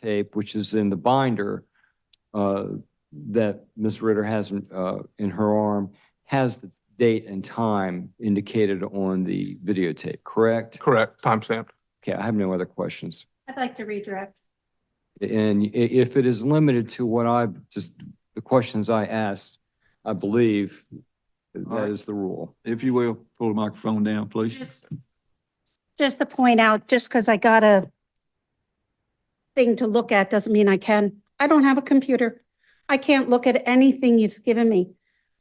tape, which is in the binder uh, that Ms. Ritter has in uh, in her arm, has the date and time indicated on the videotape, correct? Correct, timestamp. Okay, I have no other questions. I'd like to redirect. And i- if it is limited to what I, just the questions I asked, I believe that right. is the rule. If you will, pull the microphone down, please. Just just to point out, just because I got a thing to look at doesn't mean I can. I don't have a computer. I can't look at anything you've given me.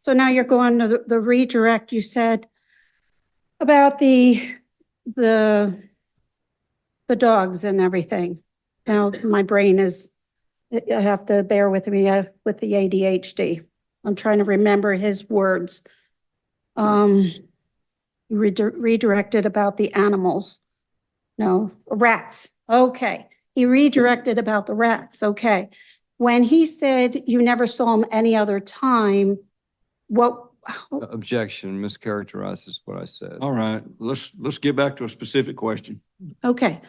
So now you're going to the- the redirect you said about the, the, the dogs and everything. Now my brain is, you have to bear with me uh, with the ADHD. I'm trying to remember his words. Um, redir- redirected about the animals. No, rats. Okay. He redirected about the rats. Okay. When he said you never saw him any other time, what, Objection mischaracterizes what I said. All right, let's, let's get back to a specific question. okay.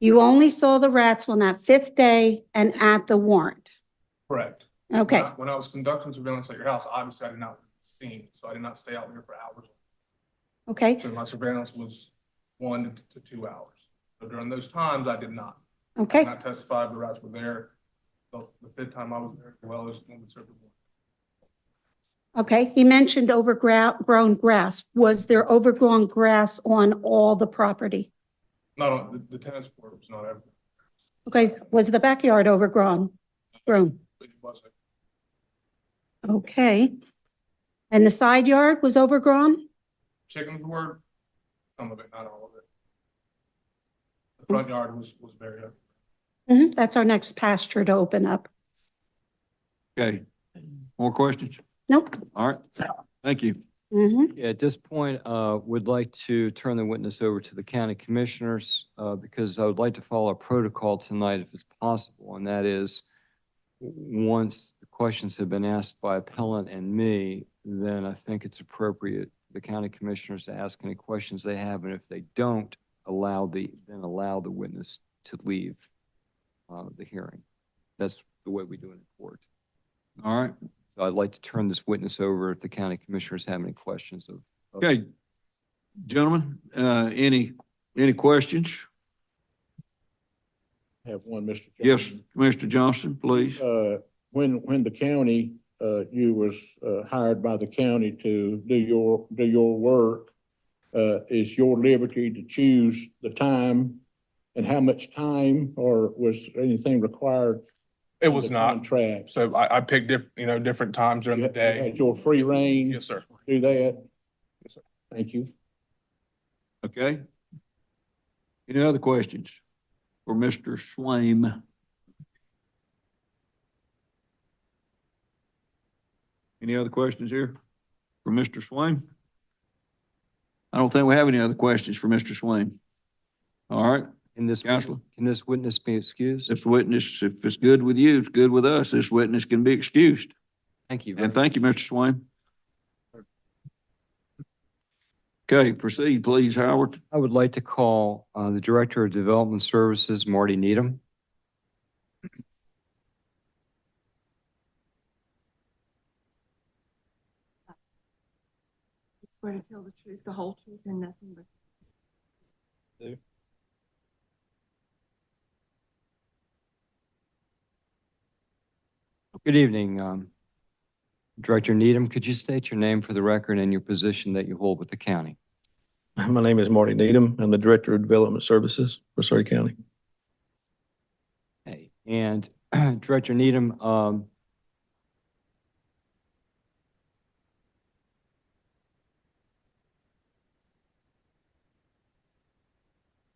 You only saw the rats on that fifth day and at the warrant. Correct. When Okay. I- When I was conducting surveillance at your house, obviously I did not see, so I did not stay out there for hours. Okay. So my surveillance was one to two hours. So during those times, I did not. I did Okay. not testify, the rats were there. The the fifth time I was there, as well as when we served the warrant. Okay. He mentioned overgrown grass. Was there overgrown grass on all the property? Not on, the- the tennis court was not ever, Okay. Was the backyard overgrown? Grown? it wasn't. Okay. And the side yard was overgrown? Chickens were, some of it, not all of it. The front yard was, was very, open. hmm that's our next pasture to open up. Okay, more questions? Nope. All right, thank you. hmm Yeah, At this point, uh, would like to turn the witness over to the county commissioners, uh, because I would like to follow a protocol tonight if it's possible, and that is, w- once the questions have been asked by appellant and me, then I think it's appropriate for the county commissioners to ask any questions they have, and if they don't, allow the, then allow the witness to leave uh, the hearing. That's the way we do it in court. All right, So I'd like to turn this witness over if the county commissioners have any questions of okay. Gentlemen, uh, any, any questions? Have one, Mr. Yes, Johnson. Mr. Johnson, please. Uh, when, when the county, uh, you was, uh, hired by the county to do your, do your work, uh, is your liberty to choose the time and how much time, or was anything required? it in was the not. Contract. So I, I picked diff, you know, different times during You the had- you day. had your free reign. Yes, sir. Do that. Yes, sir. Thank you. Okay. Any other questions for Mr. Swaim? Any other questions here for Mr. Swaim? I don't think we have any other questions for Mr. Swaim. All right, Can this, wit- Counselor? can this witness be excused? this witness, if it's good with you, it's good with us. This witness can be excused. Thank you. very And thank you, Mr. Swaim. Okay, proceed, please, Howard. I would like to call uh, the Director of Development Services, Marty Needham. Swear to tell the truth, the whole truth, and nothing but. Good evening, um, Director Needham. Could you state your name for the record and your position that you hold with the county? My name is Marty Needham. I'm the Director of Development Services for Surrey County. Okay. And Director Needham, um,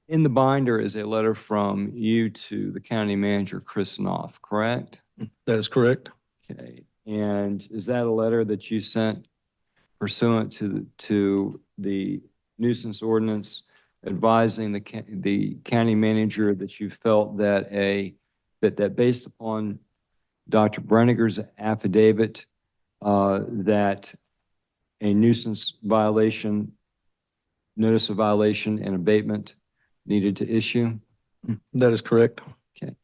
in the binder is a letter from you to the county manager, Chris Knopf, correct? That is correct. Okay, and is that a letter that you sent pursuant to, the- to the nuisance ordinance advising the, ca- the county manager that you felt that a, that, that based upon Dr. Brenniger's affidavit, uh, that a nuisance violation, notice of violation and abatement needed to issue? That is correct. Okay,